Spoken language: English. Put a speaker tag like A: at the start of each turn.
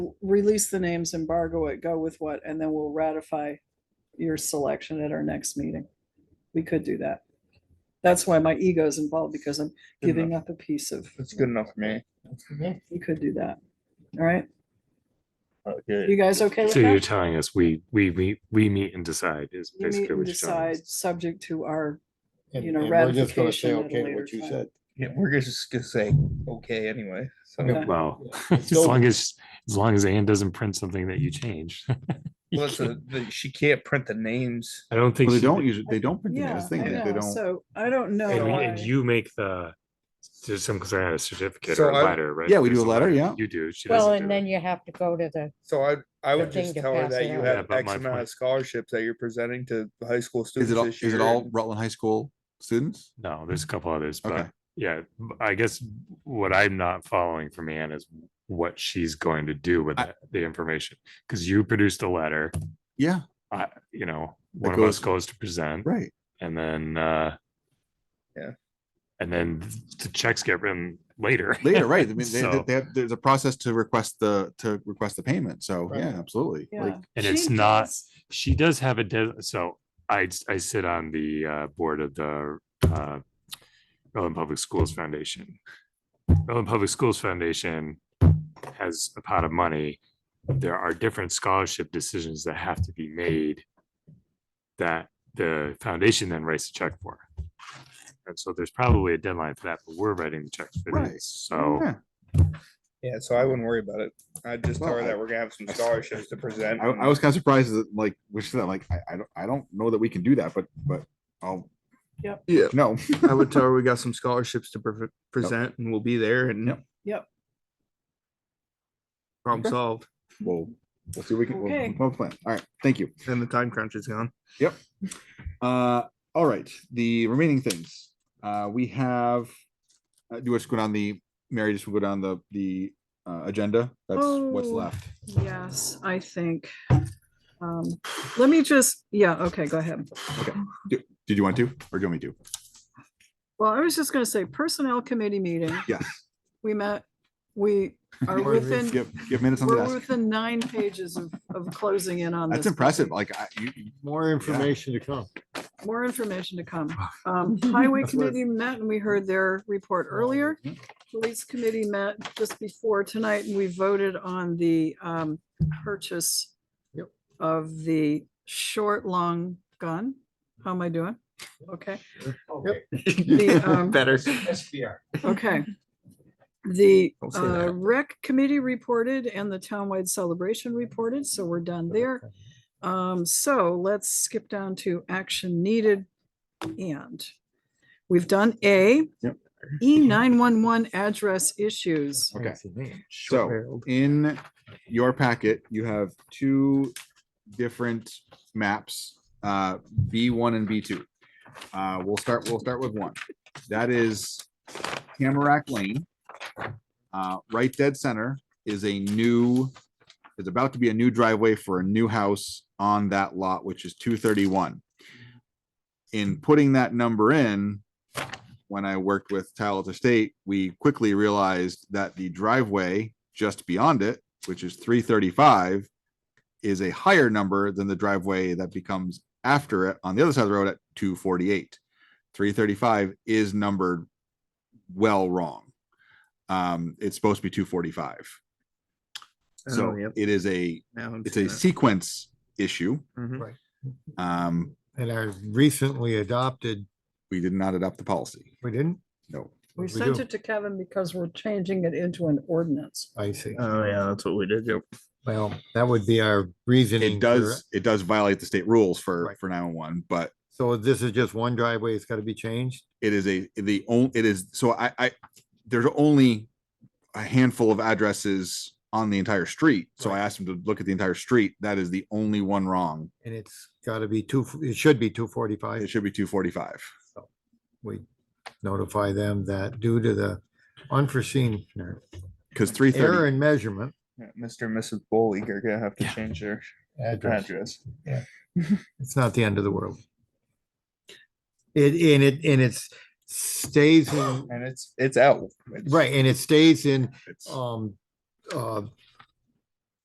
A: release the names, embargo it, go with what, and then we'll ratify your selection at our next meeting. We could do that. That's why my ego's involved because I'm giving up a piece of,
B: That's good enough for me.
A: we could do that. All right,
B: Okay,
A: you guys okay with
C: So you're
A: that?
C: telling us we, we, we, we meet and decide is
A: You meet
C: basically
A: and
C: what you're telling
A: decide,
C: us.
A: subject to our,
D: And-
A: you know,
D: and we're just gonna
A: ratification
D: say
A: at a
D: okay to
A: later
D: what you
A: time.
D: said.
B: yeah, we're just gonna say, okay, anyway, so.
A: Okay.
C: Well,
D: Yeah.
C: as long as, as long as Anne doesn't print something that you change. You
B: Well, it's
C: can't-
B: a- the- she can't print the names.
C: I don't think.
E: Well, they
C: she
E: don't
C: did.
E: usually, they don't print the
A: yeah,
E: names,
A: I
E: thing, they they
A: know,
E: don't.
A: so I don't know.
C: And,
A: why.
C: and you make the, there's some concern of a certificate
B: So
C: or a
B: I-
C: letter, right?
E: Yeah, we
C: There's
E: do a letter, yeah.
C: You do. She
F: Well,
C: doesn't
F: and
C: do
F: then
C: it.
F: you have to go to the,
B: So I, I would
F: The thing
B: just
F: to
B: tell her
F: pass
B: that
F: it
B: you
F: out.
C: Yeah,
B: have
C: but
B: X
C: my
B: amount
C: point-
B: of scholarships that you're presenting to the high school
E: Is
B: students
E: it all,
B: this
E: is
B: year.
E: it all
B: and-
E: Rutland High School students?
C: No, there's a couple others,
E: Okay.
C: but yeah, b- I guess what I'm not following from Anne is what she's going to do with
E: I-
C: that- the information. Cause you produced a letter,
E: Yeah,
C: I, you know,
E: That
C: one of us goes
E: goes-
C: to present.
E: right.
C: and then uh
B: Yeah.
C: and then th- the checks get written later
E: Later, right. I mean, they, they-
C: So-
E: they have, there's a process to request the, to request the payment. So
D: Right.
E: yeah, absolutely. Like,
A: Yeah.
C: and
A: She
C: it's not-
A: does-
C: she does have a des- so i i sit on the uh board of the uh Rutland Public Schools Foundation. Rutland Public Schools Foundation has a pot of money. There are different scholarship decisions that have to be made that the foundation then writes a check for. And so there's probably a deadline for that, but we're writing the checks for
E: Right.
C: these. So
E: yeah,
B: Yeah, so I wouldn't worry about it. I'd just tell
E: Well,
B: her
E: I-
B: that we're gonna have some scholarships to present.
E: I, I was kind of surprised that like, which that like, I, I don't, I don't know that we can do that, but, but I'll.
A: Yep.
E: Yeah. No.
B: I would tell her we got some scholarships to pre- present and we'll be there and.
A: Yep.
B: Problem
E: Okay.
B: solved,
E: Well, we'll see, what we can, we'll-
A: Okay.
E: we'll plan. All right. Thank you.
B: then the time crunch is gone.
E: Uh, all right, the remaining things, uh, we have, uh, do you want us to go down the, Mary, just go down the, the, uh, agenda? That's what's
A: Oh.
E: left.
A: Yes, I think. Um, let me just, yeah, okay, go ahead.
E: Did you want to, or do you want me to?
A: Well, I was just gonna say Personnel Committee meeting,
E: Yes.
A: we met, we are within,
E: Give, give minutes on the
A: we're
E: desk.
A: within nine pages of, of closing in on this.
E: That's impressive, like, I, you, you-
D: More
E: information
D: to come.
A: More information to come. Um, Highway Committee met and we heard their report earlier. Police Committee met just before tonight and we voted on the, um, purchase
D: Yep.
A: of the short, long gun. How am I doing? Okay. The, um,
B: Better.
A: Okay. The
B: Don't say
A: uh,
B: that.
A: rec committee reported and the townwide celebration reported, so we're done there. Um, so let's skip down to action needed and we've done A.
E: Yep.
A: E nine one one address issues.
E: okay, so in your packet, you have two different maps, uh, B one and B two. Uh, we'll start, we'll start with one. That is Tamarack Lane. Uh, right dead center is a new, is about to be a new driveway for a new house on that lot, which is two thirty-one. In putting that number in, when I worked with Talbot Estate, we quickly realized that the driveway just beyond it, which is three thirty-five, is a higher number than the driveway that becomes after it on the other side of the road at two forty-eight. Three thirty-five is numbered well wrong. Um, it's supposed to be two forty-five. So it is a, it's a sequence issue.
B: Mm-hmm.
E: Um,
D: And I recently adopted,
E: we did not adopt the policy.
D: we didn't?
E: No.
A: We
D: We
A: sent
D: do.
A: it to Kevin because we're changing it into an ordinance.
D: I see.
B: Oh, yeah, that's what we did. Yep.
D: Well, that would be our reasoning.
E: It
D: for-
E: does, it does violate the state rules for,
D: Right.
E: for nine one one, but
D: So this is just one driveway, it's gotta be changed?
E: it is a, the only, it is, so I, I, there's only a handful of addresses on the entire street. So I asked him to look at the entire street. That is the only one wrong.
D: And it's gotta be two, it should be two
E: It
D: forty-five.
E: should be two forty-five.
D: We notify them that due to the unforeseen
E: Cause three
D: error
E: thirty,
D: in measurement.
B: Mr. and Mrs. Bowley are gonna have to change their
D: Address.
B: address.
D: It's not the end of the world. It, and it, and it's stays in,
B: And it's, it's out. It's-
D: right, and it stays in
E: it's
D: um, uh,